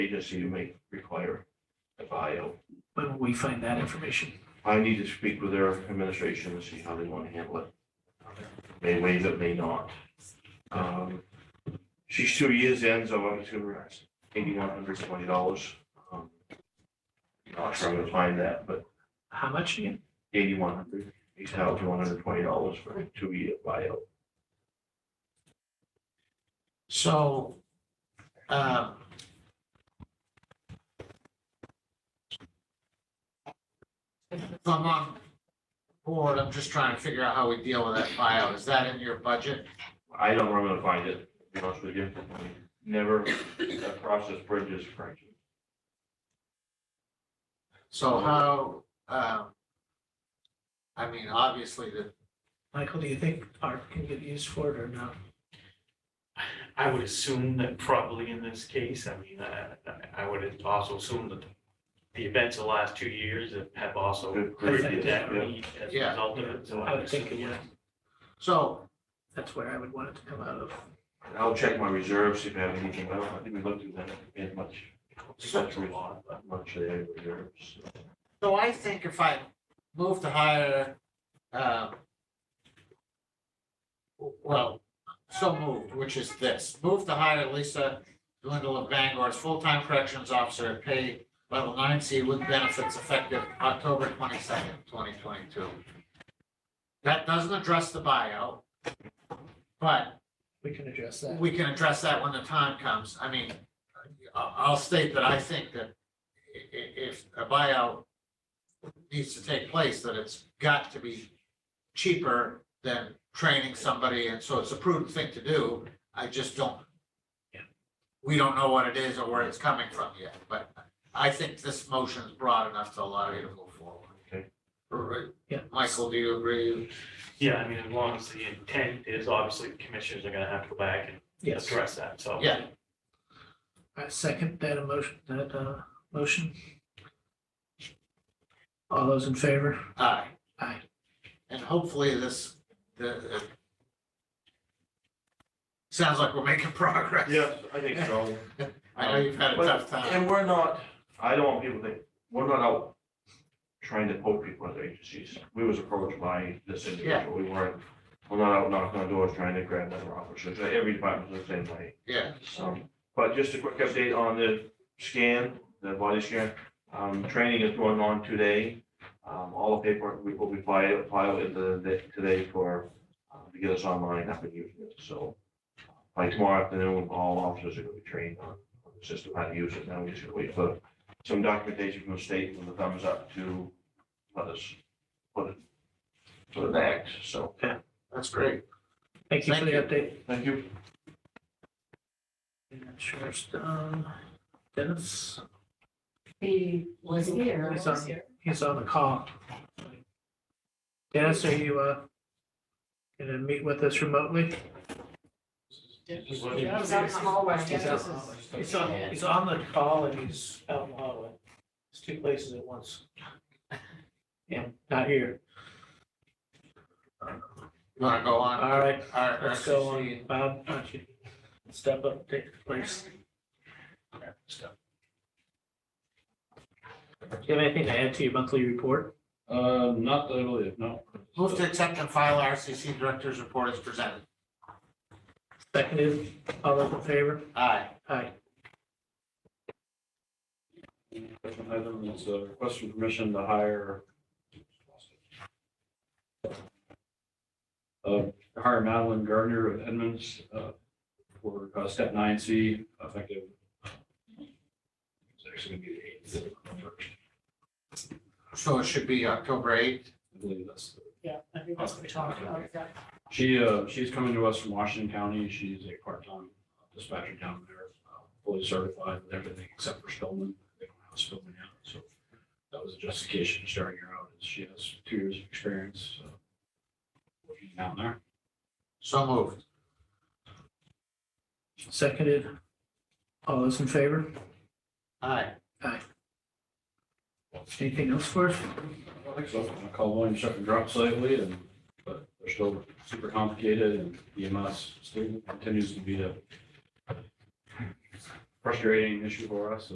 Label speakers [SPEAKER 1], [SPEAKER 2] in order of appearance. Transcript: [SPEAKER 1] agency you may require a bio.
[SPEAKER 2] When will we find that information?
[SPEAKER 1] I need to speak with their administration and see how they want to handle it. May waive it, may not. Um, She's two years in, so I'm just gonna ask eighty-one hundred twenty dollars. Um, Not sure I'm gonna find that, but
[SPEAKER 2] How much again?
[SPEAKER 1] eighty-one hundred, he's held one hundred twenty dollars for a two-year bio.
[SPEAKER 2] So, um.
[SPEAKER 3] If I'm on board, I'm just trying to figure out how we deal with that buyout. Is that in your budget?
[SPEAKER 1] I don't know where I'm gonna find it, to be honest with you. Never across this bridge is Frank.
[SPEAKER 3] So how, um, I mean, obviously the,
[SPEAKER 2] Michael, do you think art can get used for it or not?
[SPEAKER 4] I would assume that probably in this case, I mean, I, I would also assume that the events of the last two years have- have also
[SPEAKER 1] Good
[SPEAKER 4] created
[SPEAKER 1] previous,
[SPEAKER 4] that
[SPEAKER 1] yeah.
[SPEAKER 4] need as a
[SPEAKER 3] Yeah.
[SPEAKER 4] result of it, so
[SPEAKER 2] I
[SPEAKER 4] I
[SPEAKER 2] would think it
[SPEAKER 4] yeah.
[SPEAKER 2] would.
[SPEAKER 3] so,
[SPEAKER 2] That's where I would want it to come out of.
[SPEAKER 1] And I'll check my reserves, see if I have anything, I don't, I think we looked at that, we had much,
[SPEAKER 4] Such a lot, but
[SPEAKER 1] much there in reserves.
[SPEAKER 3] so I think if I move to hire, um, well, so moved, which is this, move to hire Lisa Dwindle of Bangor as full-time corrections officer at pay level nine C with benefits effective October twenty-second, twenty twenty-two. That doesn't address the buyout, but
[SPEAKER 2] We can address that.
[SPEAKER 3] we can address that when the time comes. I mean, I- I'll state that I think that i- i- if a buyout needs to take place, that it's got to be cheaper than training somebody, and so it's a prudent thing to do. I just don't.
[SPEAKER 2] Yeah.
[SPEAKER 3] We don't know what it is or where it's coming from yet, but I think this motion is broad enough to allow you to move forward.
[SPEAKER 1] Okay.
[SPEAKER 3] All right.
[SPEAKER 2] Yeah.
[SPEAKER 3] Michael, do you agree?
[SPEAKER 4] yeah, I mean, as long as the intent is, obviously, the commissioners are gonna have to go back and
[SPEAKER 2] Yes,
[SPEAKER 4] address that, so.
[SPEAKER 2] Oh.
[SPEAKER 3] Yeah.
[SPEAKER 2] I second that emotion, that, uh, motion. All those in favor?
[SPEAKER 3] Aye.
[SPEAKER 2] Aye.
[SPEAKER 3] And hopefully this, the, it sounds like we're making progress.
[SPEAKER 1] Yes, I think so.
[SPEAKER 3] I know you've had a tough time.
[SPEAKER 1] And we're not, I don't want people to think, we're not out trying to poke people at agencies. We was approached by this individual, we weren't, we're not out knocking on doors trying to grab other officers, every department's the same way.
[SPEAKER 3] Yeah,
[SPEAKER 1] So, Um, but just a quick update on the scan, the body scan, um, training is going on today. Um, all the paperwork we will be filed, filed in the, the- today for, uh, to get us online, up and using it, so. uh, By tomorrow afternoon, all officers are gonna be trained on on the system, how to use it, now we just gotta wait for some documentation from the state with the thumbs up to let us put it, put it back, so.
[SPEAKER 3] that's great.
[SPEAKER 2] Thank you for the
[SPEAKER 3] Thank
[SPEAKER 2] update.
[SPEAKER 1] Thank you.
[SPEAKER 2] And Sheriff's, um, Dennis,
[SPEAKER 5] He was here.
[SPEAKER 2] He's on, he's on the call. Dennis, are you, uh, gonna meet with us remotely?
[SPEAKER 5] Yeah, I was out in the hallway.
[SPEAKER 2] He's on, he's on, he's on the call and he's out in the hallway. It's two places at once. Yeah, not here.
[SPEAKER 3] You wanna go on?
[SPEAKER 2] All right,
[SPEAKER 3] Our- our
[SPEAKER 2] Uh, let's go on.
[SPEAKER 3] RCC.
[SPEAKER 2] Bob, why don't you step up, take the place? Do you have anything to add to your monthly report?
[SPEAKER 6] Uh, not that I believe, no.
[SPEAKER 3] Move to accept and file RCC Director's Report as presented.
[SPEAKER 2] Seconded, all those in favor?
[SPEAKER 3] Aye.
[SPEAKER 2] Aye.
[SPEAKER 6] Second item is a request for permission to hire. Uh, hire Madeline Gardner of Edmonds, uh, for uh, step nine C effective. uh, It's actually gonna be the eighth,
[SPEAKER 3] So it should be October eighth.
[SPEAKER 6] I believe that's.
[SPEAKER 5] Yeah, I think that's what we talked about, yeah.
[SPEAKER 6] She, uh, she's coming to us from Washington County. She's a part-time dispatcher down there, uh, fully certified with everything except for Spillman. They don't have Spillman yet, so that was a justification starting her out. is She has two years of experience, uh, working down there.
[SPEAKER 3] So moved.
[SPEAKER 2] Seconded. All those in favor?
[SPEAKER 3] Aye.
[SPEAKER 2] Anything else for us?
[SPEAKER 6] I don't think so. I called William Chuck and dropped slightly and, but they're still super complicated and E EMS still continues to be a frustrating issue for us.